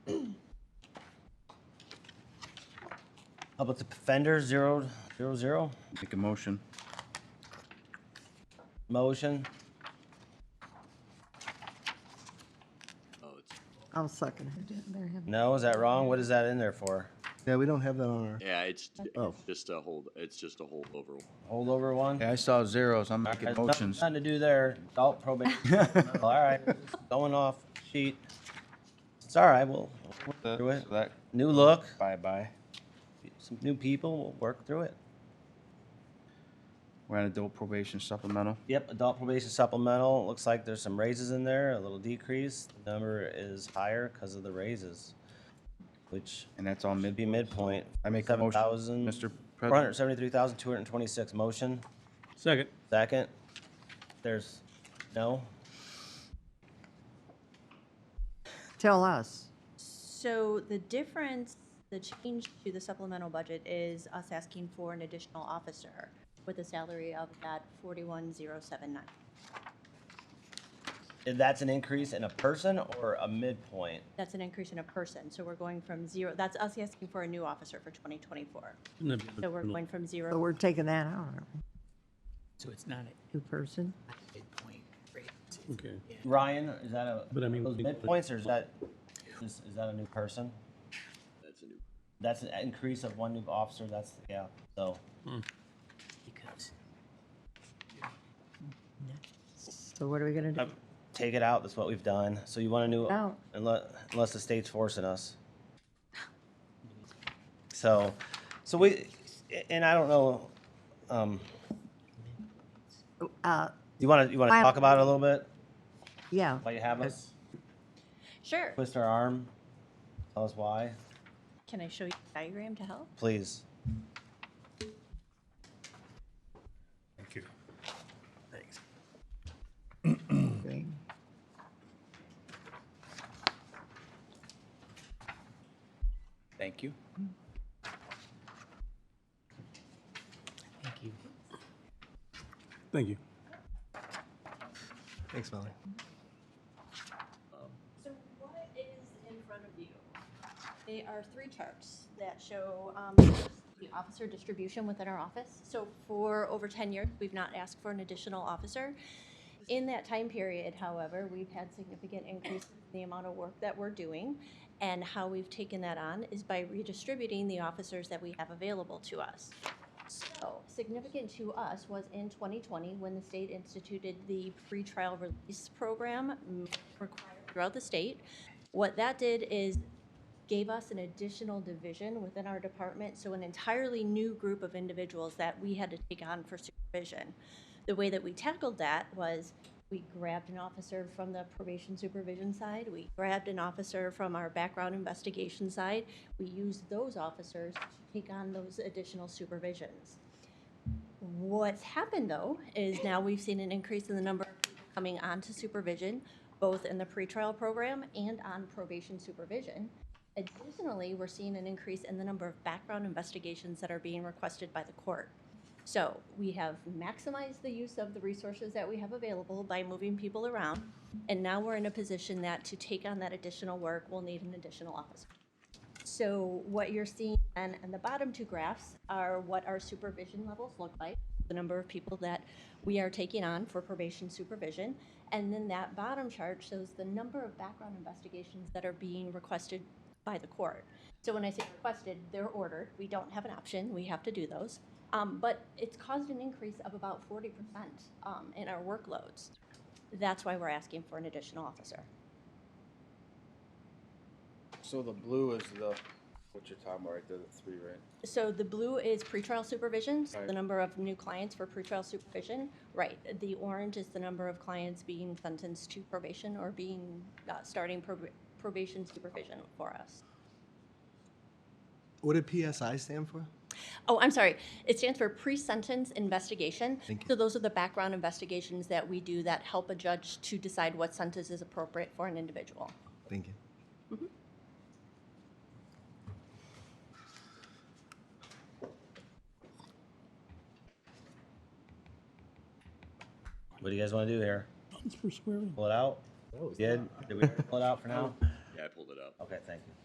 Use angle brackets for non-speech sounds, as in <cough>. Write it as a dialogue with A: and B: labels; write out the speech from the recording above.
A: How about the Fender zero, zero, zero?
B: Make a motion.
A: Motion?
C: I'll second it.
A: No, is that wrong? What is that in there for?
C: Yeah, we don't have that on our,
D: Yeah, it's
C: Oh.
D: it's just a hold, it's just a holdover.
A: Holdover one?
B: Yeah, I saw zeros, I'm making
A: There's nothing-
B: motions.
A: Nothing to do there. Adult
B: <laughs>
A: probation. All right, going off sheet. It's all right, we'll we'll work through it. New look,
B: Bye-bye.
A: some new people, we'll work through it.
B: We're on adult probation supplemental.
A: Yep, adult probation supplemental, looks like there's some raises in there, a little decrease. The Number is higher because of the raises, which
B: And that's all
A: should be
B: mid,
A: midpoint.
B: I make a motion, Mr.
A: Four hundred
B: President.
A: seventy-three thousand, two hundred and twenty-six, motion,
E: Second.
A: second. There's, no?
C: tell us.
F: So the difference, the change to the supplemental budget is us asking for an additional officer with a salary of that 41,079.
A: And That's an increase in a person or a midpoint?
F: That's an increase in a person, so we're going from zero, that's us asking for a new officer for 2024. So we're going from
C: So
F: zero,
C: we're taking that out, aren't we?
G: So it's not at
C: New person?
G: midpoint rate.
E: Okay.
A: Ryan, is that a,
E: But I mean,
A: those
E: we-
A: midpoints or is that, is, is that a new person?
D: That's a new.
A: That's an increase of one new officer, that's, yeah, so.
G: Because
C: So what are we gonna do?
A: um, Take it out, that's what we've done, so you want a new,
C: Out.
A: unless, unless the state's forcing us. So, so we, and I don't know, um,
C: Uh,
A: you wanna, you wanna
C: I-
A: talk about it a little bit?
C: yeah,
A: While you have us,
F: sure.
A: twist our arm, tell us why,
F: Can I show you a diagram to help?
A: please.
E: Thank you.
C: okay.
B: Thank you.
G: thank you.
E: Thank you.
H: Thanks, Molly.
F: So what is in front of you? They are three charts that show um, the officer distribution within our office. So for over 10 years, we've not asked for an additional officer. In that time period, however, we've had significant increase in the amount of work that we're doing. And how we've taken that on is by redistributing the officers that we have available to us. So significant to us was in 2020, when the state instituted the free trial release program mm, required throughout the state. What that did is gave us an additional division within our department, so an entirely new group of individuals that we had to take on for supervision. The way that we tackled that was we grabbed an officer from the probation supervision side, we grabbed an officer from our background investigation side. We used those officers to take on those additional supervisions. What's happened though is now we've seen an increase in the number of people coming onto supervision, both in the pretrial program and on probation supervision. Additionally, we're seeing an increase in the number of background investigations that are being requested by the court. So we have maximized the use of the resources that we have available by moving people around. And now we're in a position that to take on that additional work, we'll need an additional officer. So what you're seeing and, and the bottom two graphs are what our supervision levels look like, the number of people that we are taking on for probation supervision. And then that bottom chart shows the number of background investigations that are being requested by the court. So when I say requested, they're ordered. We don't have an option. We have to do those. Um, but it's caused an increase of about forty percent, um, in our workloads. That's why we're asking for an additional officer.
B: So the blue is the, what you're talking about, right, there, the three, right?
F: So the blue is pretrial supervision, so the
B: Right.
F: number of new clients for pretrial supervision. Right, the orange is the number of clients being sentenced to probation or being, uh, starting prob- probation supervision for us.
H: What did PSI stand for?
F: Oh, I'm sorry, it stands for pre-sentence investigation.
H: Thank you.
F: So those are the background investigations that we do that help a judge to decide what sentence is appropriate for an individual.
H: Thank you.
A: What do you guys wanna do here?
E: It's for squaring.
A: Pull it out? Did, did we pull it out for now?
D: Yeah, I pulled it up.
A: Okay, thank you.